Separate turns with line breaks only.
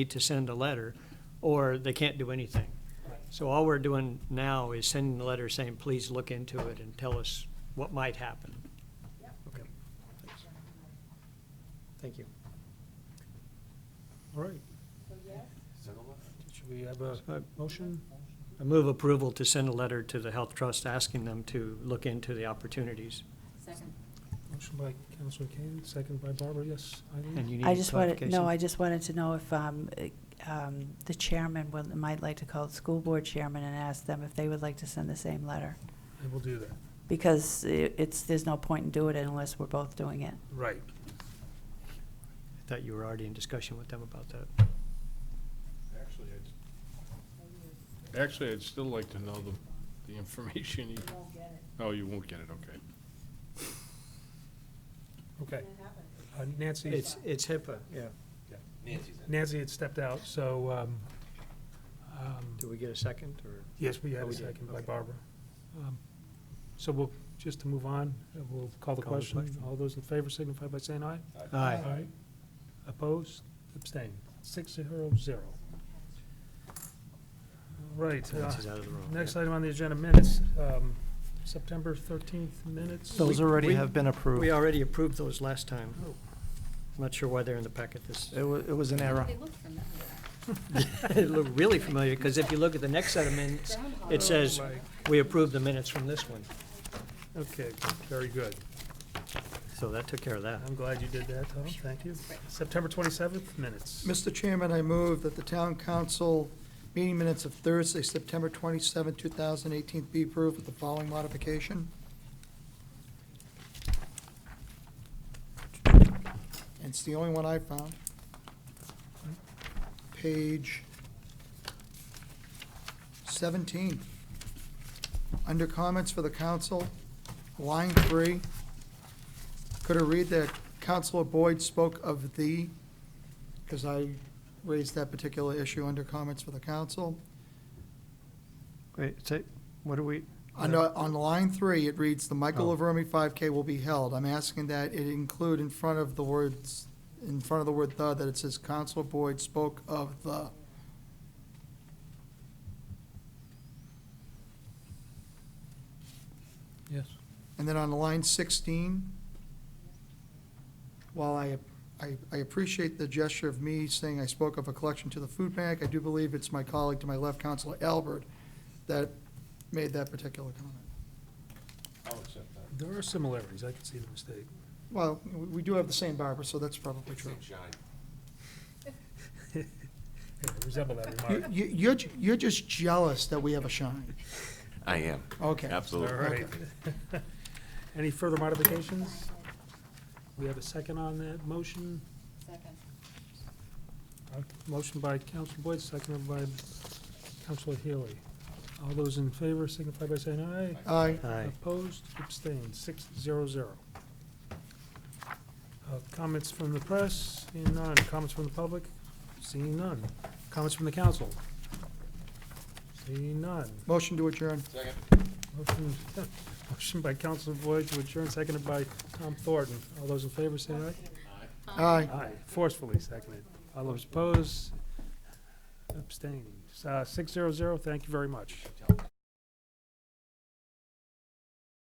need to send a letter, or they can't do anything. So all we're doing now is sending the letter saying, please look into it and tell us what might happen. Okay. Thanks. Thank you.
All right. Should we have a
Uh,
motion?
I move approval to send a letter to the Health Trust asking them to look into the opportunities.
Second.
Motion by Counselor Kane, second by Barbara, yes, Eileen?
And you
I
need
just wanted, no, I
clarification.
just wanted to know if um, eh, um, the chairman would- might like to call the school board chairman and ask them if they would like to send the same letter.
I will do that.
Because i- it's, there's no point in doing it unless we're both doing it.
Right.
I thought you were already in discussion with them about that.
Actually, I'd, actually, I'd still like to know the, the information. You won't get it. Oh, you won't get it, okay.
Okay. Uh, Nancy,
It's, it's HIPAA, yeah.
Nancy had stepped out, so, um, um,
Do we get a second, or?
yes, we had
Oh,
a
we did,
second by
okay.
Barbara. Um, So we'll, just to move on, uh, we'll call the
Call the
question.
question.
All those in favor signify by saying aye.
Aye.
Opposed, abstained, six zero zero. All right. uh,
This is out of the room.
Next item on the agenda, minutes, um, September 13th minutes.
So-
Those
We-
already
we-
have been approved.
We
It
already approved those last time.
Oh.
I'm not sure why they're in the packet this,
wa- it was an error.
They look familiar.
it looked really familiar, because if you look at the next set of minutes, it says,
Oh, my-
we approved the minutes from this one.
Okay, very good.
So that took care of that.
I'm glad you did that, Tom, thank you. September 27th minutes.
Mr. Chairman, I move that the town council meeting minutes of Thursday, September 27, 2018 be approved with the following modification. It's the only one I found. Page 17. Under comments for the council, line three. Could I read that Counselor Boyd spoke of "the"? because I raised that particular issue under comments for the council.
Wait, say, what do we,
On, on line three, it reads, "The Michael Laverme 5K will be held." I'm asking that it include in front of the words, in front of the word "the," that it says, "Counselor Boyd spoke of the."
Yes.
And then on line 16, while I, I I appreciate the gesture of me saying I spoke of a collection to the food bank, I do believe it's my colleague to my left, Counselor Albert, that made that particular comment.
I'll accept that.
There are similarities, I can see the mistake.
Well, we we do have the same barber, so that's probably true.
Yeah, they Resemble that
You-
remark.
you- You're, ju- you're just jealous that we have a shine.
I am,
Okay.
All
absolutely.
right. Any further modifications? We have a second on that motion.
Second.
Uh, Motion by Council Boyd, seconded by Council Healy. All those in favor signify by saying aye.
Aye.
aye.
Opposed, abstained, six zero zero. Uh, Comments from the press, seeing none. Comments from the public, seeing none. Comments from the council, seeing none.
Motion to adjourn.
Motion- Motion by Council Boyd to adjourn, seconded by Tom Thornton. All those in favor say aye.
Aye.
Aye, forcefully seconded. All Uh, those opposed, abstained. Six zero zero, thank you very much.